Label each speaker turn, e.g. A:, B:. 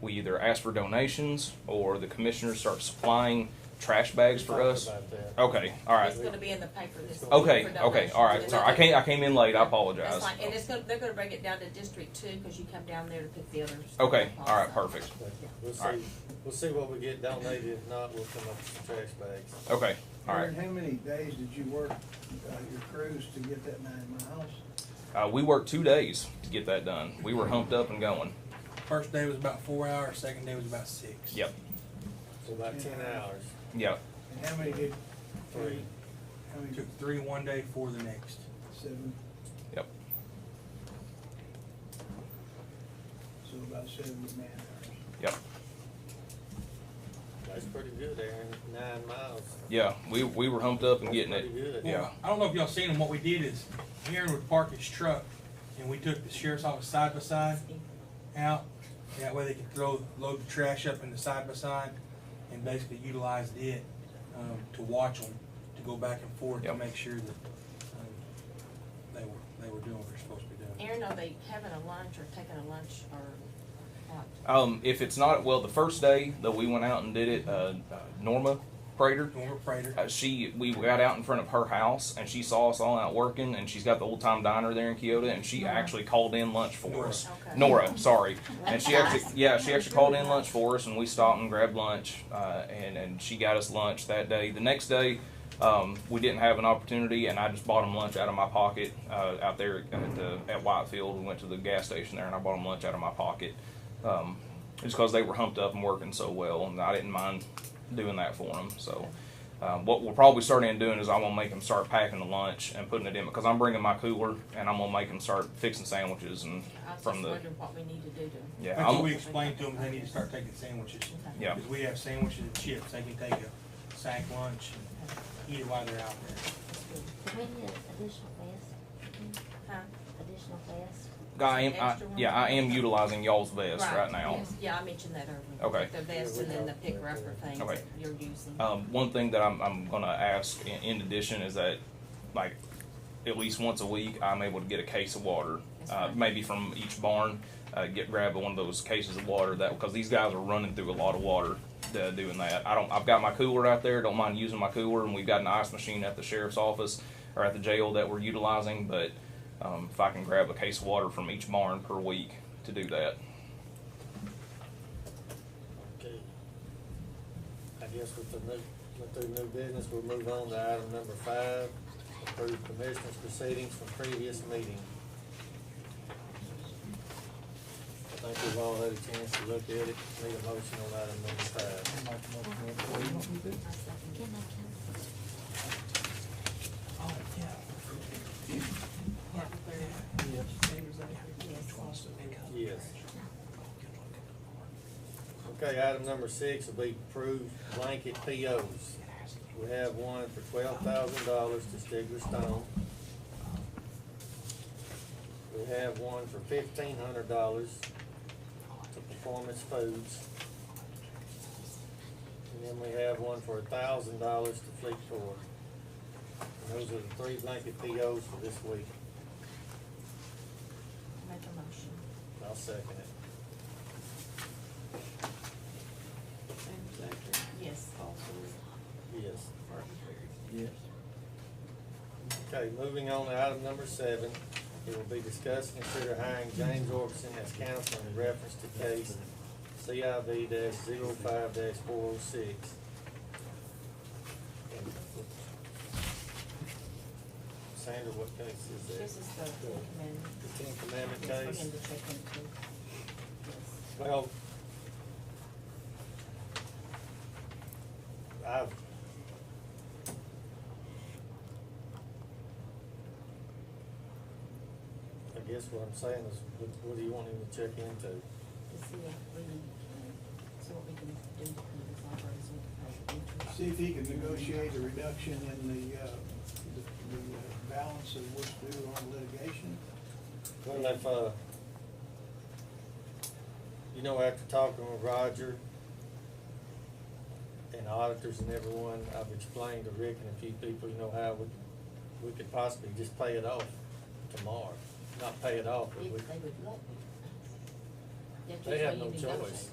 A: we either ask for donations or the commissioners start supplying trash bags for us.
B: About that.
A: Okay, all right.
C: It's gonna be in the paper this. week
A: Okay,
C: for
A: okay,
C: donations.
A: all right. Sorry, I came, I came in late. I apologize.
C: That's fine, and it's gonna, they're gonna break it down to District Two, cause you come down there to pick the others.
A: Okay,
C: up
A: all right,
C: also.
A: perfect.
B: We'll
A: All right.
B: see, we'll see what we get donated, if not, we'll come up with some trash bags.
A: Okay, all right.
D: Aaron, how many days did you work, uh, your cruise to get that nine miles?
A: Uh, we worked two days to get that done. We were humped up and going.
E: First day was about four hours, second day was about six.
A: Yep,
B: So about ten hours,
A: yep.
D: And how many did,
B: three.
D: how many,
E: Took three one day, four the next.
D: seven?
A: Yep.
D: So about seven man hours.
B: That's pretty good, Aaron, nine miles.
A: Yeah, we, we were humped up and
B: That's
A: getting
B: Pretty
A: it.
B: good.
A: Yeah.
E: I don't know if y'all seen them. What we did is Aaron would park his truck and we took the sheriff's office side by side out. That way they could throw, load the trash up in the side by side and basically utilized it, um, to watch them, to go back and forth to
A: Yep.
E: make sure that, um, they were, they were doing what they're supposed to be doing.
C: Aaron, are they having a lunch or taking a lunch or what?
A: Um, if it's not, well, the first day that we went out and did it, uh, uh, Norma Prater,
E: Norma Prater.
A: uh, she, we got out in front of her house and she saw us all out working and she's got the old time diner there in Kyoto and she
C: Nora.
A: actually called in lunch for
E: Nora.
A: us.
C: Okay.
A: Nora, sorry. And she
C: That's
A: actually,
C: nice.
A: yeah, she actually called in lunch for us, and we stopped and grabbed lunch, uh, and and she got us lunch that day. The next day, um, we didn't have an opportunity, and I just bought them lunch out of my pocket uh, out there at the at Whitefield. We went to the gas station there, and I bought them lunch out of my pocket, um, just because they were humped up and working so well, and I didn't mind doing that for them. So. Um, what we'll probably start in doing is I'm gonna make them start packing the lunch and putting it in because I'm bringing my cooler and I'm gonna make them start fixing sandwiches and
C: I was just
A: from the
C: wondering what we need to do to.
A: yeah.
E: That's
A: I'm-
E: what we explained to them, they need to start taking sandwiches.
A: Yeah.
E: Because we have sandwiches and chips, they can take a sack lunch and eat it while they're out there.
C: That's good.
F: We need additional vest,
C: Huh?
F: additional vest.
A: I am, I,
C: Extra one?
A: yeah, I am utilizing y'all's vest right, now.
C: yes. Yeah, I mentioned that earlier.
A: Okay.
C: The vest and then the picker upper things
A: Okay.
C: that you're using.
A: Um, one thing that I'm, I'm gonna ask in, in addition is that, like, at least once a week, I'm able to get a case of water,
C: That's
A: uh,
C: fine.
A: maybe from each barn. Uh, get grab one of those cases of water that because these guys are running through a lot of water uh, doing that. I don't. I've got my cooler out there. Don't mind using my cooler, and we've got an ice machine at the sheriff's office or at the jail that we're utilizing. But um, if I can grab a case of water from each barn per week to do that,
B: Okay. I guess with the new, with the new business, we'll move on to item number five, approve commissioners proceedings from previous meeting. I think we've all had a chance to look at it, need a motion on item number five.
F: Can I,
E: Oh, yeah.
B: Yes. Okay, item number six will be approved blanket POs. We have one for twelve thousand dollars to Stigler Stone. We have one for fifteen hundred dollars to Performance Foods. And then we have one for thousand dollars to Fleet Tour. And those are the three blanket POs for this week.
C: Make a motion.
B: I'll second it.
C: Yes.
B: Yes. Okay, moving on to item number seven, it will be discussed and consider hiring James Orbison as counsel in reference to case CIV 5 four oh six. Sandra, what case is that?
C: This is the recommend.
B: The Ten
C: Yes,
B: Commandment
C: we're
B: case?
C: going to check into. Yes.
B: Well, I've. I guess what I'm saying is, what, what do you want him to check into?
C: to see if we, can- see what we can do to this library's interest.
D: See if he can negotiate a reduction in the, uh, the, the uh, balance of what's due on litigation.
B: Well, if, uh, you know, after talking with Roger and auditors and everyone, I've explained to Rick and a few people, you know, how we, we could possibly just pay it off tomorrow. Not pay it off, but we
C: If they would let me. That's
B: They have
C: usually
B: no
C: you negotiate.
B: choice.